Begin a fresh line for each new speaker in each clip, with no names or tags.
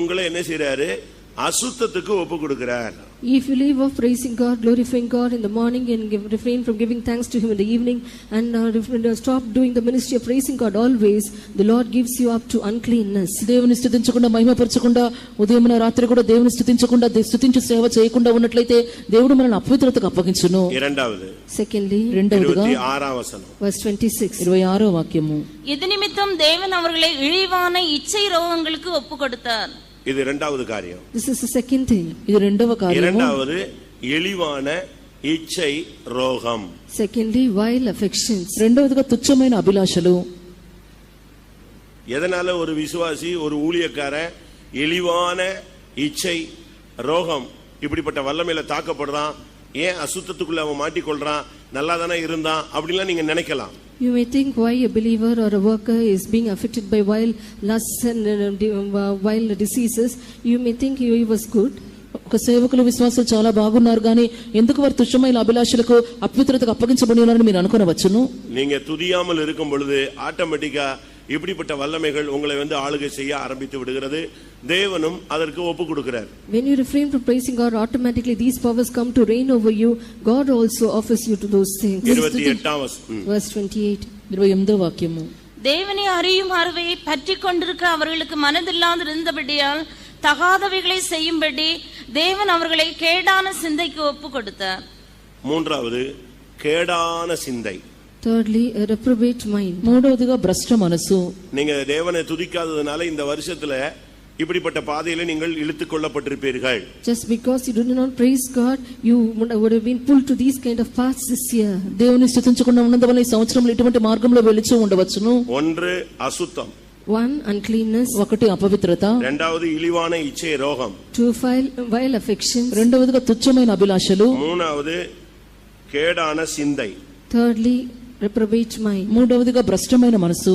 உங்களை என்ன செய்றாரு அசுத்தத்துக்கு ஒப்பு கொடுக்கிறார்
If you leave off praising God, glorifying God in the morning and give, refrain from giving thanks to Him in the evening and uh, refrain- uh, stop doing the ministry of praising God always, the Lord gives you up to uncleanness.
దేవుని స్థుతించకుండా మహిమపరచకుండా ఉదయం రాత్రి కూడా దేవుని స్థుతించకుండా they- స్థుతించు సేవ చేయకుండా ఉన్నట్లయితే దేవుడు మనల్ని అపవిత్రతకు అప్పగించును
இரண்டாவது
Secondly,
రెండవదిగా
இருபத்தி ஆறாம் వசனம்
verse 26.
ఇరవై ఆరో వాక్యము
இது நிமித்தம் தேவன் அவர்களை இழிவான இச்சை ரோகங்களுக்கு ஒப்பு கொடுத்தார்
இது இரண்டாவது காரியம்
This is the second thing.
ఇది రెండవ కార్యము
இரண்டாவது இழிவான இச்சை ரோகம்
Secondly, vile affections.
రెండవదిగా తుచ్చమైన అభిలాషలు
எதனால ஒரு விசுவாசி ஒரு ஊழியக்காரன் இழிவான இச்சை ரோகம் இப்படிப்பட்ட வல்லமையில தாக்கப்படுறான் ஏன் அசுத்தத்துக்குள்ள அவன் மாட்டிக்கொள்றான் நல்லா தானே இருந்தான் அப்படின்லாம் நீங்க நினைக்கலாம்
You may think why a believer or a worker is being affected by vile lusts and uh, de- uh, vile diseases. You may think he was good.
ఒక సేవకులు విశ్వాసులు చాలా బాగున్నారు కానీ ఎందుకు వారు తుచ్చమైన అభిలాషలకు అపవిత్రతకు అప్పగించబడి ఉన్నారని మీరు అనుకునవచ్చును
நீங்க துதியாமல் இருக்கும் பொழுது ஆட்டோமேட்டிக்கா இப்படிப்பட்ட வல்லமைகள் உங்களை வந்து ஆளுகை செய்ய ஆரம்பித்து விடுகிறது தேவனும் அதற்கு ஒப்பு கொடுக்கிறார்
When you refrain from praising God, automatically these powers come to reign over you. God also offers you to those things.
இருபத்தி எட்டாம் வசனம் ம்.
Verse 28.
ఇరవై ఎనిమిదో వాక్యము
தேவனை அறியும் அறிவையை பற்றி கொண்டிருக்க அவர்களுக்கு மனதில்லாது இருந்தபடியால் தகாதவைகளை செய்யும்படி தேவன் அவர்களை கேடான சிந்தைக்கு ஒப்பு கொடுத்தார்
மூன்றாவது கேடான சிந்தை
Thirdly, a reprobate mind.
మూడవదిగా భ్రష్ట మనసు
நீங்க தேவனை துதிக்காததுனால இந்த வருஷத்துல இப்படிப்பட்ட பாதையில நீங்கள் இழுத்துக் கொள்ளப்பட்டிருப்பீர்கள்
Just because you do not praise God, you would would have been pulled to these kind of paths this year.
దేవుని స్థుతించకుండా ఉన్నందువల్ల ఈ సంవత్సరంలో ఇటువంటి మార్గంలో వెలిచి ఉండవచ్చును
ஒன்று அசுத்தம்
One, uncleanness.
ఒకటి అపవిత్రత
இரண்டாவது இழிவான இச்சை ரோகம்
Two, vile vile affections.
రెండవదిగా తుచ్చమైన అభిలాషలు
மூணாவது கேடான சிந்தை
Thirdly, reprobate mind.
మూడవదిగా భ్రష్టమైన మనసు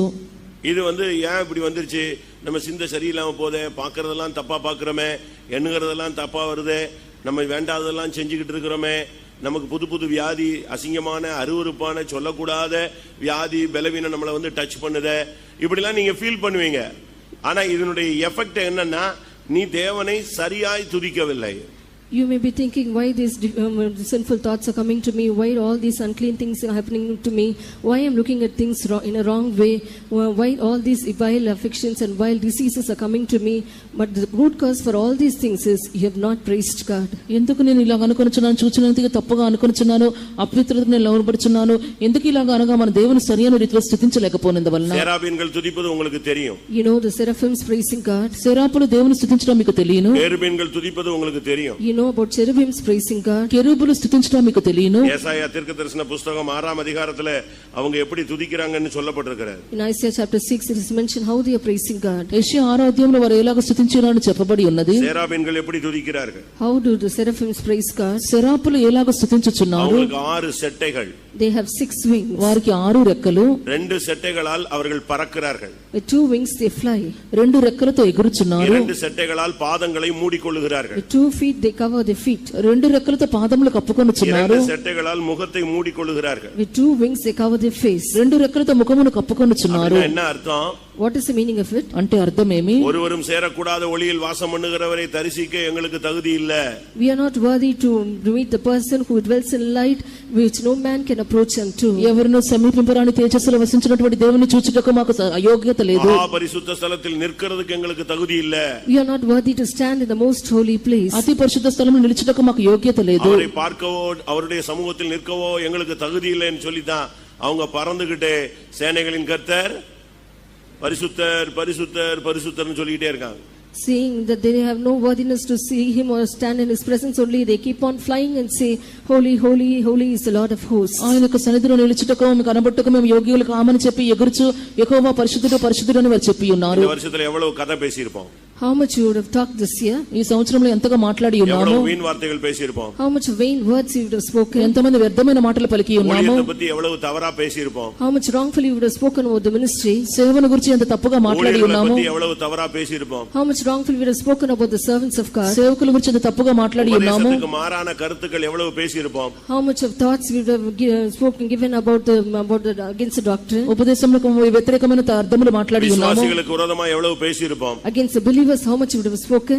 இது வந்து ஏன் இப்படி வந்துருச்சு நம்ம சிந்தை சரியில்லாம போதே பார்க்கறதெல்லாம் தப்பா பார்க்கறோமே எண்ணுகிறதெல்லாம் தப்பா வருதே நம்ம வேண்டாததெல்லாம் செஞ்சுக்கிட்டு இருக்கிறோமே நமக்கு புது புது வியாதி அசிங்கமான அருவருப்பான சொல்லக்கூடாத வியாதி பலவீனம் நம்மளை வந்து டச் பண்ணுதே இப்படிலாம் நீங்க ஃபீல் பண்ணுவீங்க ஆனா இதனுடைய எஃபெக்ட் என்னன்னா நீ தேவனை சரியாய் துதிக்கவில்லை
You may be thinking why these di- um, sinful thoughts are coming to me, why all these unclean things are happening to me, why I'm looking at things wrong, in a wrong way, why why all these vile affections and vile diseases are coming to me. But the root cause for all these things is you have not praised God.
ఎందుకు నేను ఇలా అనుకొనిచున్నాను చూచినందుకు తప్పుగా అనుకొనిచున్నాను అపవిత్రతకు నేను లోనపడుచున్నాను ఎందుకు ఇలాగ అనగా మన దేవుని సరియైన రీతిలో స్థుతించలేకపోయినందువలన
சேராபீன்கள் துதிப்பது உங்களுக்கு தெரியும்
You know the seraphims praising God.
శరాపులు దేవుని స్థుతించడం మీకు తెలియను
பேருபீன்கள் துதிப்பது உங்களுக்கு தெரியும்
You know about cherubims praising God.
కెరూబులు స్థుతించడం మీకు తెలియను
ஏசாயா தீர்க்க தரிசன புஸ்தகம் ஆறாம் அதிகாரத்துல அவங்க எப்படி துதிக்கிறாங்கன்னு சொல்லப்பட்டிருக்கிறார்
In Isaiah chapter 6, it is mentioned how they are praising God.
యెషయా ఆరాధ్యంలో వారు ఎలాగ స్థుతించినారని చెప్పబడి ఉన్నది
சேராபீன்கள் எப்படி துதிக்கிறார்கள்
How do the seraphims praise God?
శరాపులు ఎలాగ స్థుతించుచున్నారు
அவங்களுக்கு ஆறு செட்டைகள்
They have six wings.
వారికి ఆరు రెక్కలు
ரெண்டு செட்டைகளால் அவர்கள் பறக்கிறார்கள்
With two wings they fly.
రెండు రెక్కలతో ఎగురుచున్నారు
இரண்டு செட்டைகளால் பாதங்களை மூடிக்கொள்ளுகிறார்கள்
With two feet they cover their feet.
రెండు రెక్కలతో పాదములు
இரண்டு
కప్పుకొనుచున్నారు
செட்டைகளால் முகத்தை மூடிக்கொள்ளுகிறார்கள்
With two wings they cover their face.
రెండు రెక్కలతో ముఖమును కప్పుకొనుచున్నారు
அப்படின்னா என்ன அர்த்தம்
What is the meaning of it?
అంటే అర్థమేమి
ஒருவரும் சேரக்கூடாத ஒளியில் வாசம் பண்ணுகிறவரை தரிசிக்க எங்களுக்கு தகுதி இல்ல
We are not worthy to meet the person who dwells in light which no man can approach unto.
ఎవరినో సమీపింపరాని తేజస్సులో వసించినటువంటి దేవుని చూచుటకు మాకు స- అయోగ్యత లేదు
மகா பரிசுத்த ஸ்தலத்தில் நிற்கிறதுக்கு எங்களுக்கு தகுதி இல்ல
We are not worthy to stand in the most holy place.
అతి పరిశుద్ధ స్థలంలో నిలుచుటకు మాకు యోగ్యత లేదు
அவரை பார்க்கவோ அவருடைய சமூகத்தில் நிற்கவோ எங்களுக்கு தகுதி இல்லைன்னு சொல்லித்தான் அவங்க பறந்துகிட்டே சேனைகளின் கர்த்தர் பரிசுத்தர் பரிசுத்தர் பரிசுத்தர்னு சொல்லிக்கிட்டே இருக்காங்க
Seeing that they have no worthiness to see him or stand in his presence only, they keep on flying and say, Holy, holy, holy is the Lord of hosts.
ఆయన యొక్క సన్నిధిలో నిలుచుటకు మీకు కనబట్టుకు మేము యోగ్యులు కామని చెప్పి ఎగురుచు ఎక్కువ పరిశుద్ధుడు పరిశుద్ధుడు అని వారు చెప్పి ఉన్నారు
இந்த வருஷத்துல எவ்வளவு கதை பேசியிருப்போம்
How much you would have talked this year?
ఈ సంవత్సరంలో ఎంతగా మాట్లాడి ఉన్నాము
எவ்வளவு வீண் வார்த்தைகள் பேசியிருப்போம்
How much vain words you would have spoken?
ఎంతమంది వ్యర్థమైన మాటలు పలికి ఉన్నాము
ஊழியத்தை பத்தி எவ்வளவு தவறா பேசியிருப்போம்
How much wrongfully you would have spoken about the ministry?
సేవను గురించి ఎంత తప్పుగా మాట్లాడి
ஊழியர்களை
ఉన్నాము
பத்தி எவ்வளவு தவறா பேசியிருப்போம்
How much wrongfully we have spoken about the servants of God?
సేవకుల గురించి ఎంత తప్పుగా మాట్లాడి ఉన్నాము
உபதேசத்துக்கு மாறான கருத்துக்கள் எவ்வளவு பேசியிருப்போம்
How much of thoughts we have gi- spoken given about the about the against the doctrine,
ఉపదేశంలో వ్యతిరేకమైన అర్థములు మాట్లాడి ఉన్నాము
விசுவாசிகளுக்கு விரோதமா எவ்வளவு பேசியிருப்போம்
against the believers, how much would have spoken.